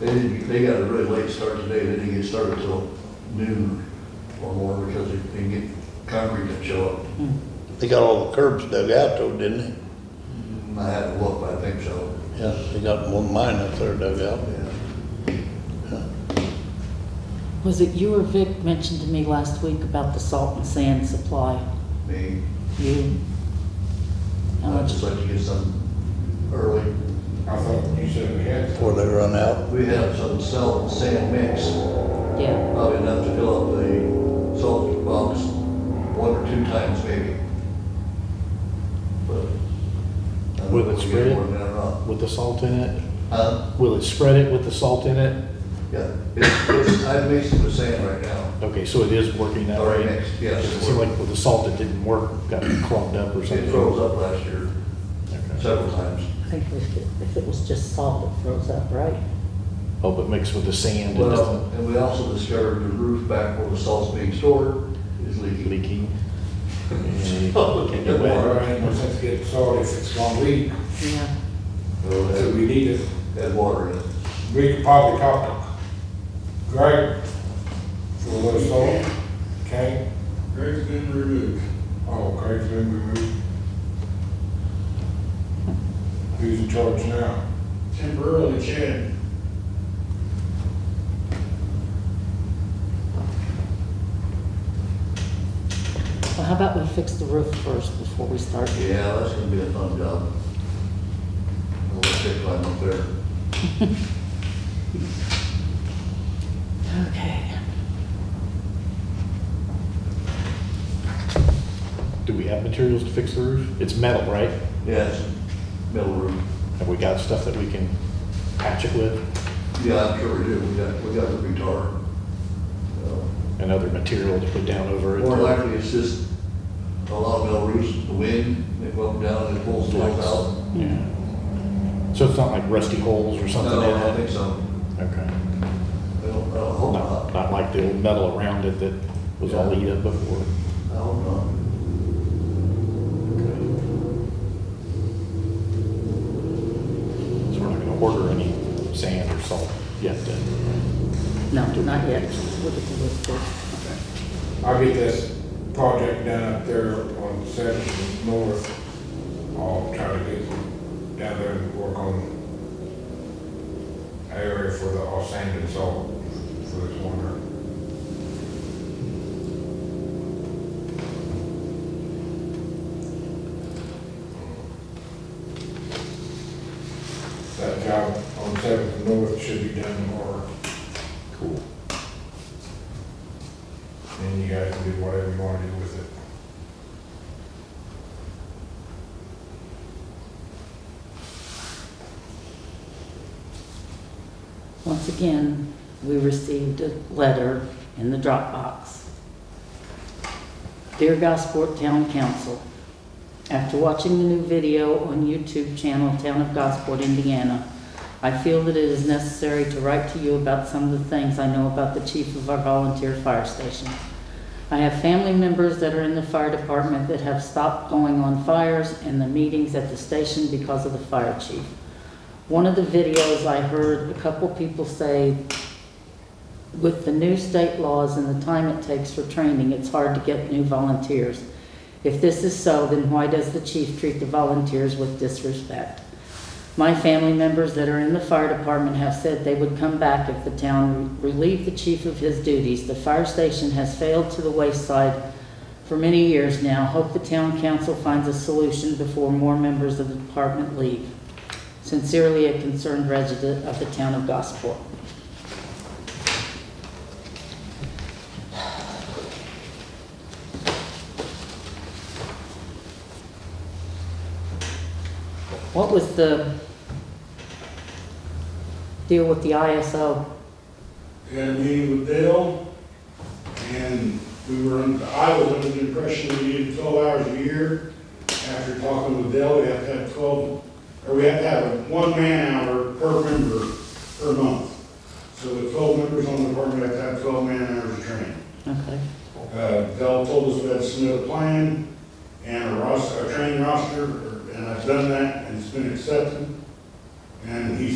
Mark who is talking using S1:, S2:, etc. S1: They didn't, they got a really late start today, they didn't get started till noon or more because they didn't get concrete to show up.
S2: They got all the curbs dug out though, didn't
S1: I had to look, but I think so.
S2: they? Yeah, they got one mine up there dug out.
S1: Yeah.
S3: Was it you or Vic mentioned to me last week about the salt and sand supply?
S1: Me,
S3: You? How
S1: I'd
S3: much?
S1: just like to get some early.
S4: I thought you said we had
S2: Before they run out,
S1: We have some salt and sand mix,
S3: Yeah,
S1: probably enough to fill up the salt box one or two times maybe. But I don't know
S5: With
S1: if we
S5: it
S1: get
S5: spread?
S1: more than that or not.
S5: with the salt in it?
S1: Huh?
S5: Will it spread it with the salt in it?
S1: Yeah, it's, it's, I mix it with sand right now,
S5: Okay, so it is working that
S1: Already
S5: way?
S1: mixed, yes.
S5: It seemed like with the salt, it didn't work, got clogged up or something?
S1: it froze up last year
S5: Okay.
S1: several times.
S3: I think if it- if it was just salt, it froze up, right?
S5: Oh, but mixed with the sand, it
S1: Well,
S5: doesn't
S1: and we also discovered the roof back where the salt's being stored is leaking.
S5: leaking?
S1: Oh, okay.
S4: it. Water ain't no sense getting salt if it's gonna leak,
S3: Yeah.
S1: Well,
S4: so
S1: it
S4: we need it.
S1: Had water in it.
S4: We could probably talk to Greg for a little salt, okay?
S6: Greg's been removed.
S4: Oh, Greg's been removed. Who's in charge now?
S6: Temporarily Chad.
S3: Well, how about we fix the roof first before we start?
S1: Yeah, that's gonna be a fun job. A little stick climb up there.
S3: Okay.
S5: Do we have materials to fix the roof? It's metal, right?
S1: Yeah, it's metal roof.
S5: Have we got stuff that we can patch it with
S1: Yeah, I'm sure we do. We got, we got the retard. So,
S5: and other material to put down over it?
S1: More likely it's just a lot of metal roofs, the wind, they go up and down and it pulls the lights out.
S5: Yeah. So it's not like rusty holes or something
S1: No, I don't
S5: in
S1: think
S5: it?
S1: so.
S5: Okay.
S1: I don't, I don't hope
S5: Not,
S1: not.
S5: not like the old metal around it that was all eat up before?
S1: I hope not.
S5: So we're not gonna order any sand or salt yet then?
S3: No, not yet. Look at the roof first.
S4: I'll get this project done up there on Seventh North. I'll try to get down there and work on area for the all sand and salt for this winter. That job on Seventh North should be done tomorrow.
S5: Cool.
S4: And you guys can do whatever you want to do with it.
S3: Once again, we received a letter in the Dropbox. Dear Gosport Town Council, after watching the new video on YouTube channel Town of Gosport, Indiana, I feel that it is necessary to write to you about some of the things I know about the chief of our volunteer fire station. I have family members that are in the fire department that have stopped going on fires and the meetings at the station because of the fire chief. One of the videos I heard a couple people say, with the new state laws and the time it takes for training, it's hard to get new volunteers. If this is so, then why does the chief treat the volunteers with disrespect? My family members that are in the fire department have said they would come back if the town relieved the chief of his duties. The fire station has failed to the wayside for many years now. Hope the town council finds a solution before more members of the department leave. Sincerely, a concerned resident of the town of Gosport. What was the deal with the ISO?
S6: We had a meeting with Dale, and we were, un- I was under the impression we needed twelve hours a year. After talking with Dale, we have to have twelve, or we have to have one man hour per member per month. So the twelve members on the department have to have twelve man hours of training.
S3: Okay,
S6: Uh, Dell told us we had to submit a plan and a roster, a training roster, and I've done that, and it's been accepted. And he